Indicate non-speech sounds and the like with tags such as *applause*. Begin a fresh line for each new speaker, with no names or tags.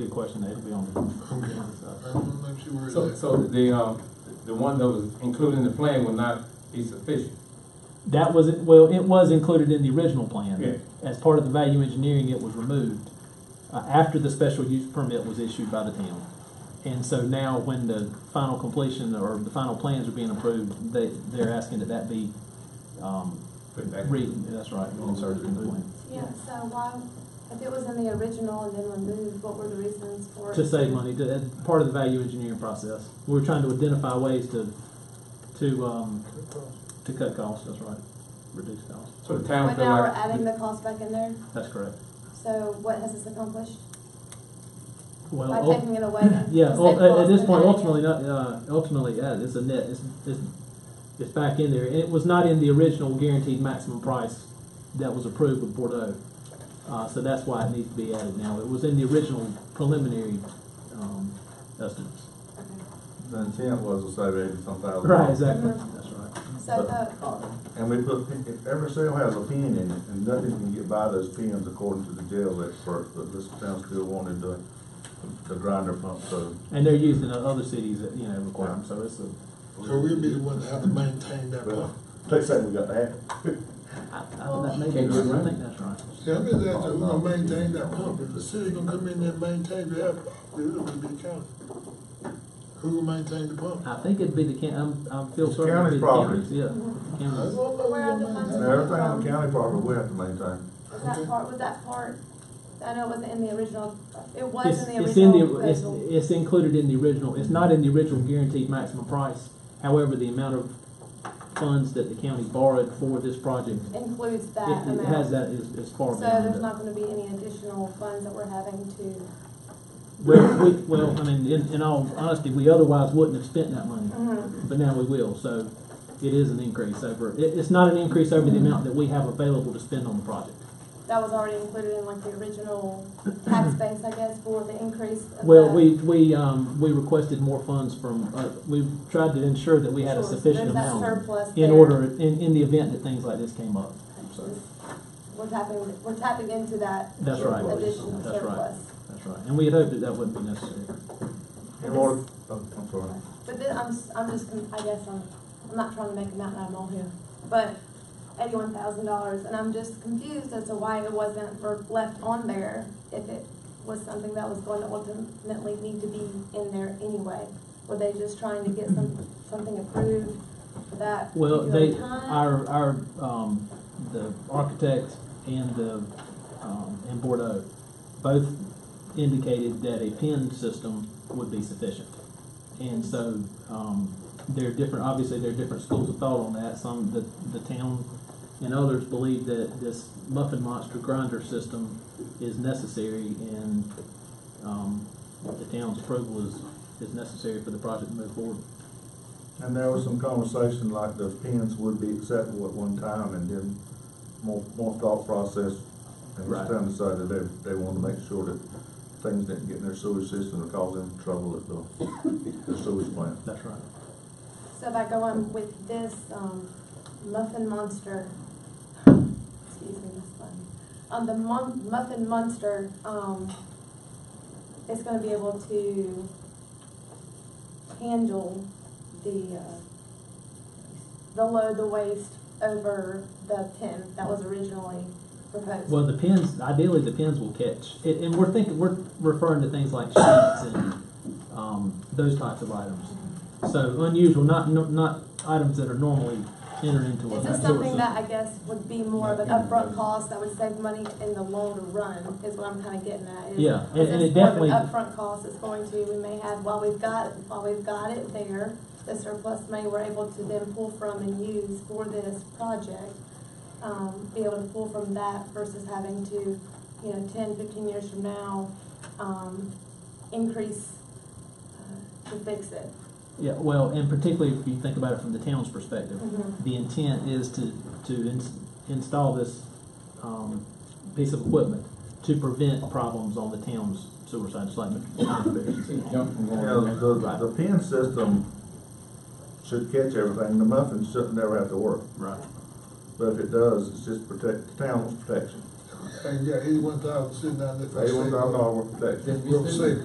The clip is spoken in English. Good question, it'll be on.
I want to make sure where
So,
it's at.
so the, uh, the one that was included in the plan will not be sufficient.
That was, well, it was included in the original plan.
Yeah.
As part of the value engineering, it was removed uh, after the special use permit was issued by the town. And so now, when the final completion or the final plans are being approved, they, they're asking that that be, um,
Put it back.
re, that's right, inserted in the plan.
Yeah, so why, if it was in the original and then removed, what were the reasons for it?
To save money, to, as part of the value engineering process. We were trying to identify ways to, to, um, to cut costs, that's right, reduce costs,
So the town
But
feel
now we're
like.
adding the cost back in there,
that's correct.
so what has this accomplished?
Well,
By
ul-
taking it away?
*laughs* Yeah,
just
well,
take
at, at this
cost
point,
and
ultimately,
add it.
not, uh, ultimately, yeah, it's a net, it's, it's, it's back in there, and it was not in the original guaranteed maximum price that was approved with Bordeaux. Uh, so that's why it needs to be added now, it was in the original preliminary, um, estimates.
Okay.
The intent was to save eighty-some thousand.
Right, exactly,
Mhm.
that's right.
So the, oh,
And we put, if every cell has a pin in it, and nothing can get by those pins according to the jail experts, but this town still wanted the, the grinder pump, so.
And they're used in other cities that, you know, require them, so it's a,
So we'll be the one that have to maintain that
Well,
pump.
They say we got to have it.
I, I, that may be,
Can't do it,
I
right?
think that's right.
See, I'm just asking who gonna maintain that pump, if the city gonna come in there and maintain that, it'll be county. Who will maintain the pump?
Uh,
I think it'd be the county, I'm, I feel
It's
certain it'd be
county's
the
property.
county's, yeah, county's.
Where are the funds?
And everything on county property, we have to maintain.
is that part, was that part, I know it wasn't in the original, it was
It's,
in the
it's in
original
the, it's,
proposal.
it's included in the original, it's not in the original guaranteed maximum price. However, the amount of funds that the county borrowed for this project,
Includes
it
that
it
amount.
has that as, as far
So
beyond
there's
it.
not gonna be any additional funds that we're having to,
Well, we, well, I mean, in, in all honesty, we otherwise wouldn't have spent that money,
Mhm.
but now we will, so it is an increase over, it, it's not an increase over the amount that we have available to spend on the project.
that was already included in like the original tax base, I guess, for the increase of
Well,
the-
we, we, um, we requested more funds from, uh, we tried to ensure that we had a
Sure, so
sufficient
there's that
amount.
surplus
in
there.
order, in, in the event that things like this came up. So,
We're tapping, we're tapping into that
That's right,
additional
that's right,
surplus.
that's right. And we had hoped that that wouldn't be necessary.
In order, oh, I'm sorry.
But then, I'm, s- I'm just, con- I guess I'm, I'm not trying to make a mountain out of a molehill, but eighty-one thousand dollars, and I'm just confused as to why it wasn't for- left on there if it was something that was going to ultimately need to be in there anyway. Were they just trying to get some, something approved for that
Well, they,
particular time?
our, our, um, the architect and the, um, and Bordeaux both indicated that a PIN system would be sufficient. And so, um, there are different, obviously, there are different schools of thought on that. Some, the, the town and others believe that this muffin monster grinder system is necessary and, um, the town's approval is, is necessary for the project to move forward.
And there was some conversation like the pins would be acceptable at one time and then more, more thought process. And
Right.
this town decided they, they wanted to make sure that things didn't get in their sewage system or cause them trouble at the, the sewage
*laughs*
plant.
That's right.
So by going with this, um, Muffin Monster, excuse me, that's funny. Um, the mon- Muffin Monster, um, is gonna be able to handle the, uh, the load, the waste over the pin that was originally proposed.
Well, the pins, ideally, the pins will catch, and, and we're thinking, we're referring to things like sheets and, um, those types of items. So unusual, not, not items that are normally entered into a.
Is this
sewer
something
system.
that I guess would be more of an upfront cost that would save money in the longer run, is what I'm kinda getting at? is-
Yeah, and-
is
and
this
it
more of an
definitely-
Upfront cost it's going to, we may have, while we've got, while we've got it there, the surplus money we're able to then pull from and use for this project, um, be able to pull from that versus having to, you know, ten, fifteen years from now, um, increase uh, to fix it.
Yeah, well, and particularly if you think about it from the town's perspective,
Mhm.
the intent is to, to ins- install this, um, piece of equipment to prevent problems on the town's sewer side, just like.
It jumped from
You
one
know,
to the
the, the pin system should catch everything, the muffins shouldn't ever have to work,
Right.
but if it does, it's just protect, town's protection. and you got eighty-one thousand sitting down there. for
Eighty-one
savings.
thousand dollars worth of taxes.
Just be
We'll
serious.
see.